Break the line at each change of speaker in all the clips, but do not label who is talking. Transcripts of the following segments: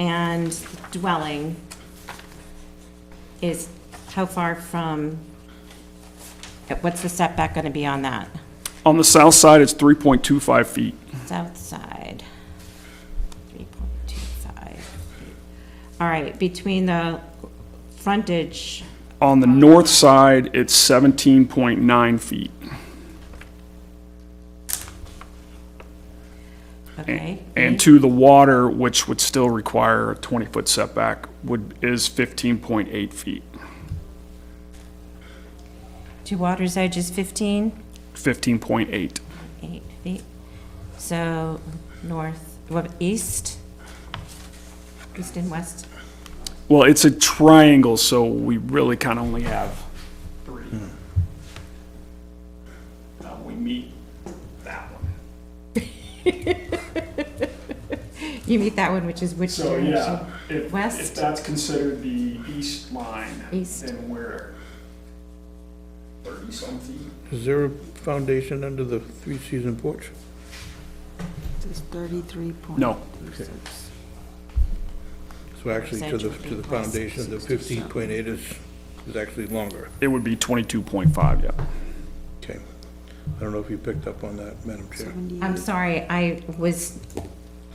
and dwelling is how far from, what's the setback going to be on that?
On the south side, it's 3.25 feet.
South side, three point two five. All right, between the frontage,
On the north side, it's 17.9 feet.
okay?
And to the water, which would still require a 20-foot setback, would, is 15.8 feet.
To water's edge is fifteen?
15.8.
eight feet. So north, what, east? East and west?
Well, it's a triangle, so we really kind of only have three. Now, we meet that one.
You meet that one, which is which
So,
direction?
yeah, if, if
West?
that's considered the east line,
East.
then we're 30-some feet.
Is there a foundation under the three-season porch?
It's 33 point.
No.
So actually, to the, to the foundation, the fifteen point eight is, is actually longer.
It would be 22.5, yeah.
Okay. I don't know if you picked up on that, Madam Chair.
I'm sorry, I was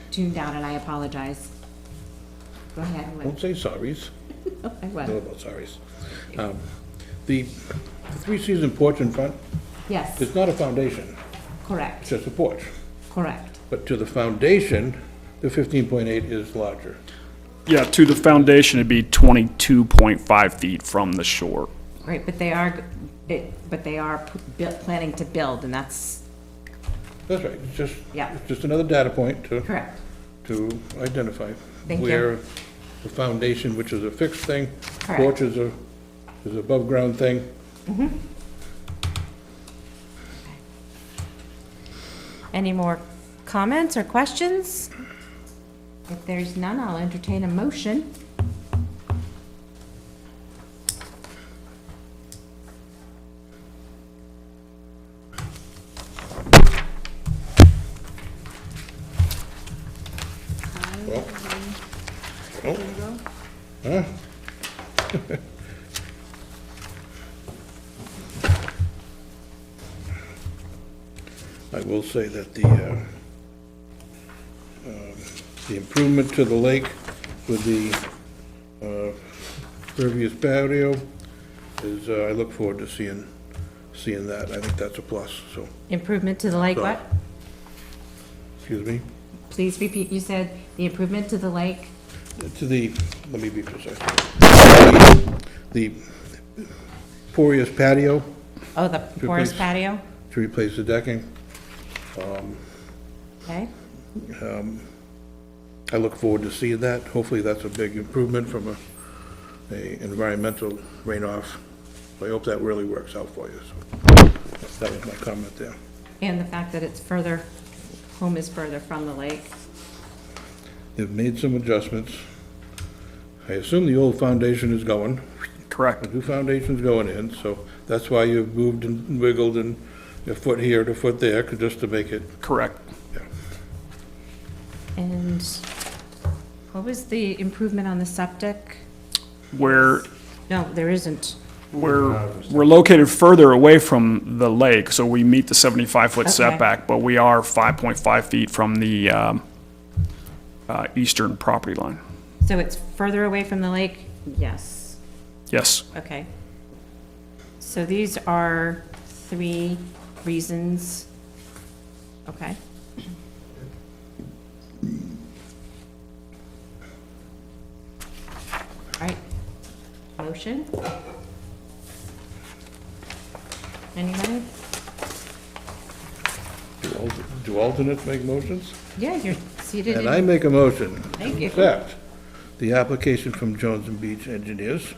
tuned out and I apologize. Go ahead. Oh,
Don't say sorries.
I
No,
was,
about sorries. Um, The, the three-season porch in front
yes,
is not a foundation, it's
correct,
just a porch.
correct.
But to the foundation, the fifteen point eight is larger.
Yeah, to the foundation, it'd be 22.5 feet from the shore.
Right, but they are, it- but they are p- bu- planning to build and that's
That's right, it's just,
Yeah.
it's just another data point to.
correct.
to identify
Thank you.
where the foundation, which is a fixed thing,
Correct.
porch is a, is above-ground thing.
Any more comments or questions? If there's none, I'll entertain a motion.
Well, I will say that the, uh, um, the improvement to the lake with the uh, pervious patio is, uh, I look forward to seeing, seeing that. I think that's a plus, so,
Improvement to the lake, what?
excuse me.
Please repeat, you said the improvement to the lake?
to the, let me be precise. The porous patio
Oh, the porous
Replace.
patio?
to replace the decking.
Okay,
I look forward to seeing that. Hopefully, that's a big improvement from a, a environmental rainoff. I hope that really works out for you, so that was my comment there.
and the fact that it's further, home is further from the lake?
They've made some adjustments. I assume the old foundation is going.
Correct.
The new foundation's going in, so that's why you've moved and wiggled and a foot here to foot there, 'cause just to make it
Correct.
And what was the improvement on the septic?
We're,
No, there isn't.
we're, we're located further away from the lake, so we meet the 75-foot
Okay.
setback, but we are 5.5 feet from the um, uh, eastern property line.
So it's further away from the lake? Yes,
Yes,
okay. So these are three reasons, okay? All right, motion? Anybody?
Do al- Do alternates make motions?
Yeah, you're seated
And I
in,
make a motion.
Thank you.
Accept the application from Jones and Beach Engineers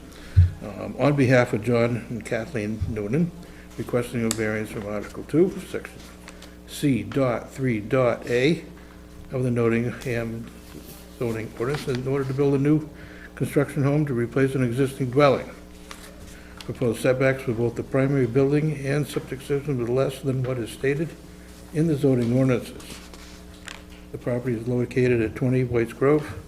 um, on behalf of John and Kathleen Noonan, requesting a variance from Article 2, Section C dot 3 dot A of the Nottingham zoning ordinance in order to build a new construction home to replace an existing dwelling. Proposed setbacks for both the primary building and septic system is less than what is stated in the zoning ordinances. The property is located at 20 Whites Grove